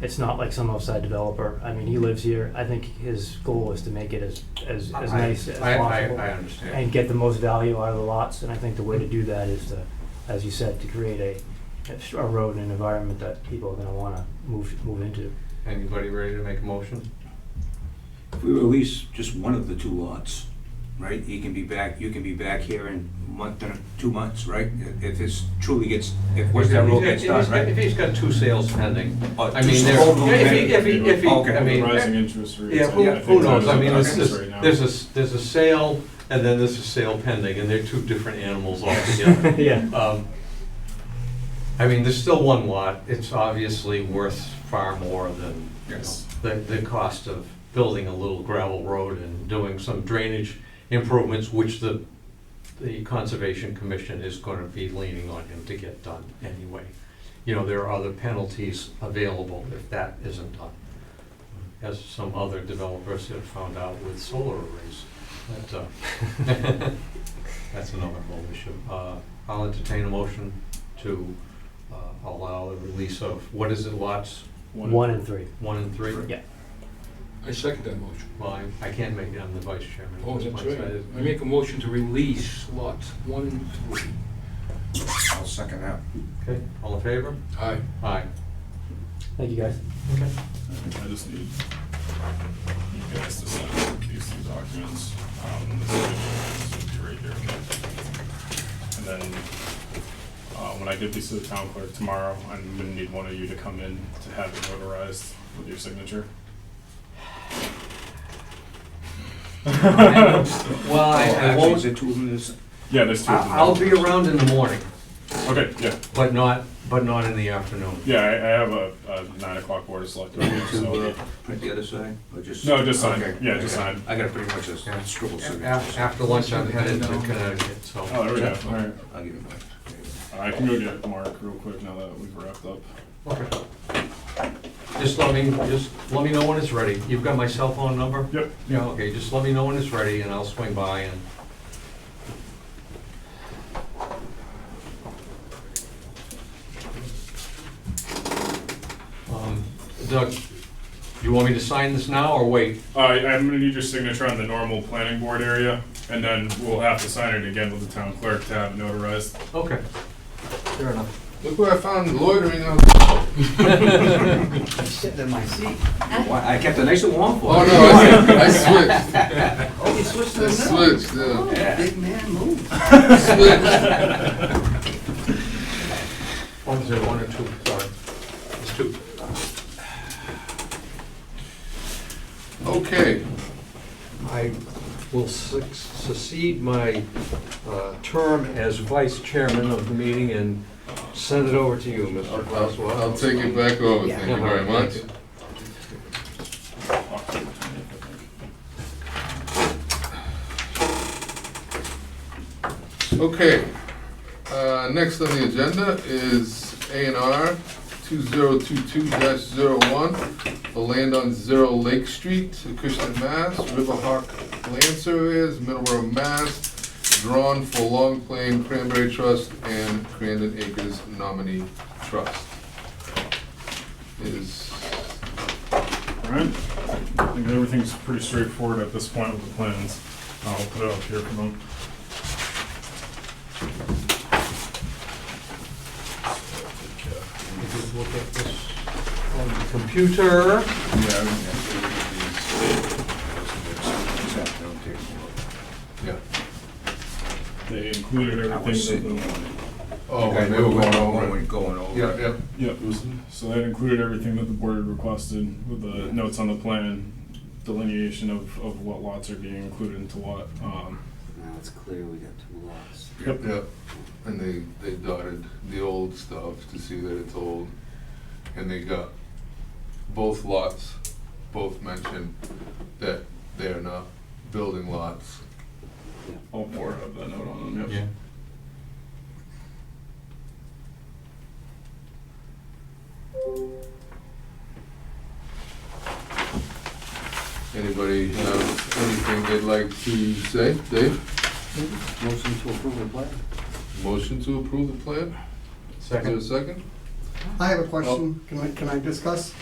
It's not like some outside developer. I mean, he lives here. I think his goal is to make it as, as, as I- nice as I- I- possible. I understand. And get the most value out of the lots, and I think the way to do that is to, as you said, to create a, a road and an environment that people are gonna wanna move, move into. Anybody ready to make a motion? If we release just one of the two lots, right, he can be back, you can be back here in a month, or two months, right? If- If this truly gets, if West End Road gets done, If right? he's got two sales pending, Oh, I two mean, sales. there, Oh, if he, if he, if he, okay. I mean, Rising interest rates. yeah, I who, think who that's knows, I mean, this what is, happens right now. there's a, s- there's a sale, and then there's a sale pending, and they're two different animals altogether. Yeah. Um, I mean, there's still one lot, it's obviously worth far more than, you know, Yes. the, the cost of building a little gravel road and doing some drainage improvements, which the, the Conservation Commission is gonna be leaning on him to get done anyway. You know, there are other penalties available if that isn't done, as some other developers have found out with solar arrays. But, uh, um, that's another whole issue. Uh, I'll entertain a motion to uh, allow the release of, what is it, lots One and three. one and three? Yeah. I second that motion. Well, I- I can't make it, I'm the vice chairman. Oh, that's Once right. I- I make a motion to release lots one and three. I'll second that. Okay, all in favor? Aye. Aye. Thank you, guys. Okay. I just need you guys to sign these two documents. Um, this is gonna be right here. And then, uh, when I give these to the town clerk tomorrow, I'm gonna need one of you to come in to have it notarized with your signature. Well, I- I Oh, Actually, is won't, there two of them this? Yeah, there's two of them. I- I'll be around in the morning, Okay, yeah, but not, but not in the afternoon. yeah, I, I have a, a nine o'clock board of select. Do I need to so. uh, print the other side, or just? No, just sign. Okay. Yeah, just sign. I got pretty much a Yeah. scribble A- signature. a- so After lunch, I'm headed to Connecticut, so. Oh, there we go, all right. I'll give it back. I can go get Mark real quick now that we've wrapped up. Okay. Just let me, just let me know when it's ready. You've got my cell phone number? Yep. Yeah, okay, just let me know when it's ready and I'll swing by and. Um, Doug, you want me to sign this now or wait? Uh, I'm gonna need your signature on the normal planning board area, and then we'll have to sign it again with the town clerk to have it notarized. Okay. Fair enough. Look what I found loitering on. I'm sitting in my seat. Why, I kept it nice and warm for Oh, you. no, I switched. Oh, you switched I switched, yeah. Yeah. Big man move. Switched. One, zero, Oh, one or two, sorry. It's two. Okay. I will suc- succeed my uh, term as vice chairman of the meeting and send it over to you, Mr. I'll Glasswell. I'll take it back over. Thank you very much. Okay, uh, next on the agenda is A and R two zero two two dash zero one, the land on Zero Lake Street, Acushnet, Mass. Riverhawk Land Surveyors, Middleborough, Mass. Drawn for Long Plain Cranberry Trust and Crandon Acres Nominee Trust. Is, Alright, I think everything's pretty straightforward at this point with the plans. I'll put it up here for them. Just look at this on the Computer. yeah. They included I was sitting everything that here. Oh, Okay, and they were going over We're it. Going over. Yeah, yeah. the, yep, so that included everything that the board had requested with the notes on the plan, delineation of, of what lots are being included into what. Um, Now it's clear we got two lots. Yep. Yeah, and they, they dotted the old stuff to see that it's old, and they got both lots, both mentioned that they're not building lots. all four have that note on them, yep. Anybody have anything they'd like to say? Dave, Motion to approve the plan? motion to approve the plan? Is there a Second. second? I have a question. Can I, can I discuss?